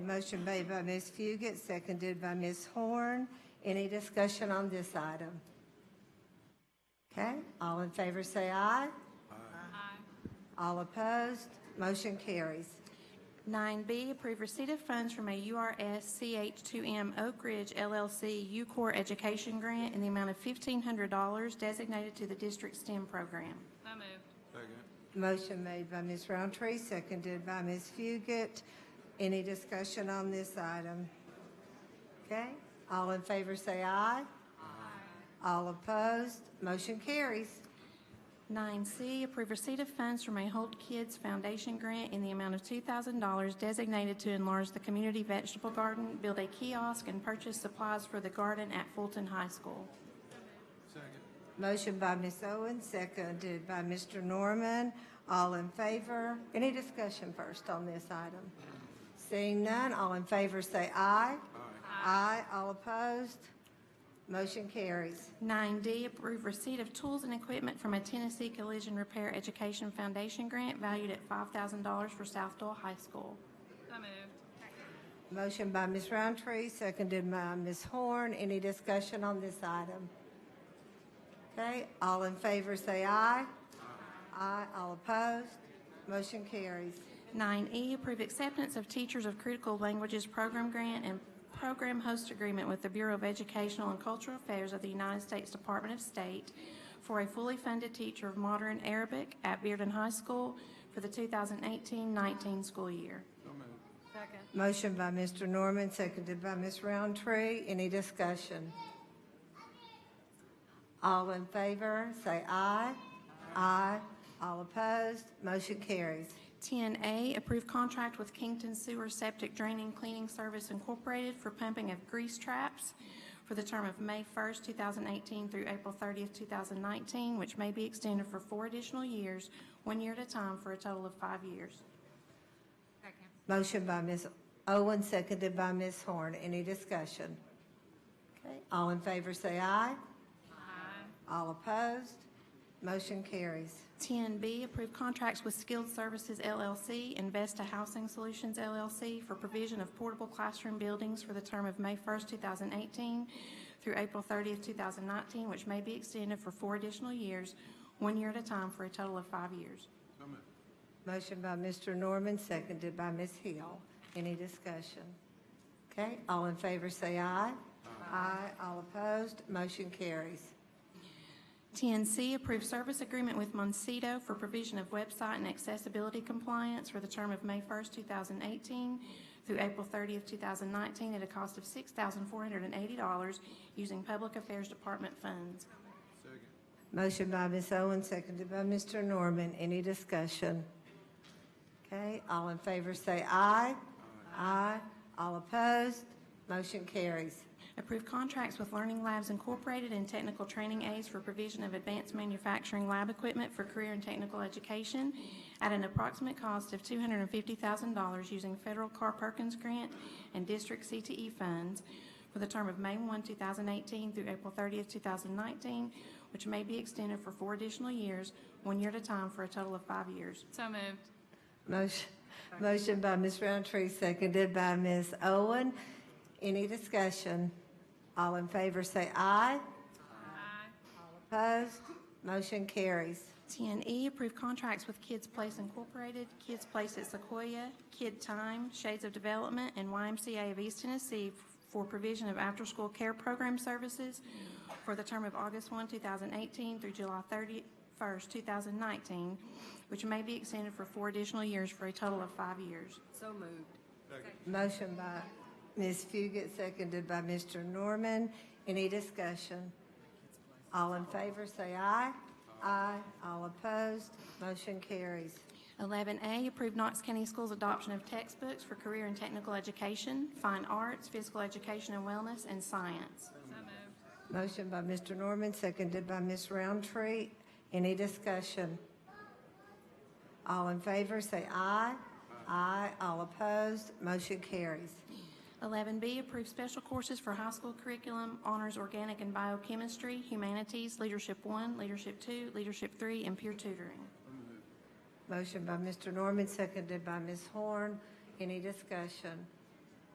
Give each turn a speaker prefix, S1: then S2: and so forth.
S1: Motion made by Ms. Fugit, seconded by Ms. Horn. Any discussion on this item? Okay, all in favor say aye. Aye. All opposed, motion carries.
S2: 9B, approve receipt of funds from a URS CH2M Oak Ridge LLC UCOR Education Grant in the amount of $1,500 designated to the district STEM program.
S3: So moved.
S4: Second.
S1: Motion made by Ms. Roundtree, seconded by Ms. Fugit. Any discussion on this item? Okay, all in favor say aye. Aye. All opposed, motion carries.
S2: 9C, approve receipt of funds from a Holt Kids Foundation grant in the amount of $2,000 designated to enlarge the community vegetable garden, build a kiosk, and purchase supplies for the garden at Fulton High School.
S4: Second.
S1: Motion by Ms. Owen, seconded by Mr. Norman. All in favor? Any discussion first on this item? Seeing none, all in favor say aye. Aye. all opposed? Motion carries.
S2: 9D, approve receipt of tools and equipment from a Tennessee Collision Repair Education Foundation grant valued at $5,000 for South Doyle High School.
S3: So moved.
S1: Motion by Ms. Roundtree, seconded by Ms. Horn. Any discussion on this item? Okay, all in favor say aye. Aye, all opposed? Motion carries.
S2: 9E, E, approve acceptance of Teachers of Critical Languages Program Grant and Program Host Agreement with the Bureau of Educational and Cultural Affairs of the United States Department of State for a fully funded teacher of modern Arabic at Bearden High School for the 2018-19 school year.
S4: So moved.
S3: Second.
S1: Motion by Mr. Norman, seconded by Ms. Roundtree. Any discussion? All in favor, say aye. Aye. All opposed, motion carries.
S2: 10A, approve contract with Kington Sewer Septic Draining Cleaning Service Incorporated for pumping of grease traps for the term of May 1st, 2018 through April 30th, 2019, which may be extended for four additional years, one year at a time, for a total of five years.
S3: Second.
S1: Motion by Ms. Owen, seconded by Ms. Horn. Any discussion? Okay, all in favor, say aye.
S3: Aye.
S1: All opposed, motion carries.
S2: 10B, approve contracts with Skilled Services LLC and Vesta Housing Solutions LLC for provision of portable classroom buildings for the term of May 1st, 2018 through April 30th, 2019, which may be extended for four additional years, one year at a time, for a total of five years.
S4: So moved.
S1: Motion by Mr. Norman, seconded by Ms. Hill. Any discussion? Okay, all in favor say aye. Aye. All opposed, motion carries.
S2: 10C, approve service agreement with Moncedo for provision of website and accessibility compliance for the term of May 1st, 2018 through April 30th, 2019, at a cost of $6,480 using Public Affairs Department funds.
S4: Second.
S1: Motion by Ms. Owen, seconded by Mr. Norman. Any discussion? Okay, all in favor say aye. Aye. All opposed, motion carries.
S2: Approve contracts with Learning Labs Incorporated and Technical Training Aids for provision of advanced manufacturing lab equipment for career and technical education at an approximate cost of $250,000 using federal Carr Perkins grant and district CTE funds for the term of May 1, 2018 through April 30, 2019, which may be extended for four additional years, one year at a time, for a total of five years.
S3: So moved.
S1: Motion, motion by Ms. Roundtree, seconded by Ms. Owen. Any discussion? All in favor say aye.
S3: Aye.
S1: Opposed? Motion carries.
S2: 10E, E, approve contracts with Kids Place Incorporated, Kids Place at Sequoia, Kid Time, Shades of Development, and YMCA of East Tennessee for provision of after-school care program services for the term of August 1, 2018 through July 31st, 2019, which may be extended for four additional years for a total of five years.
S3: So moved.
S4: Second.
S1: Motion by Ms. Fugit, seconded by Mr. Norman. Any discussion? All in favor, say aye. Aye. All opposed, motion carries.
S2: 11A, approve Knox County Schools adoption of textbooks for career and technical education, fine arts, physical education and wellness, and science.
S3: So moved.
S1: Motion by Mr. Norman, seconded by Ms. Roundtree. Any discussion? All in favor, say aye. Aye. All opposed, motion carries.
S2: 11B, approve special courses for high school curriculum, honors organic and biochemistry, humanities, leadership one, leadership two, leadership three, and peer tutoring.
S1: Motion by Mr. Norman, seconded by Ms. Horn. Any discussion?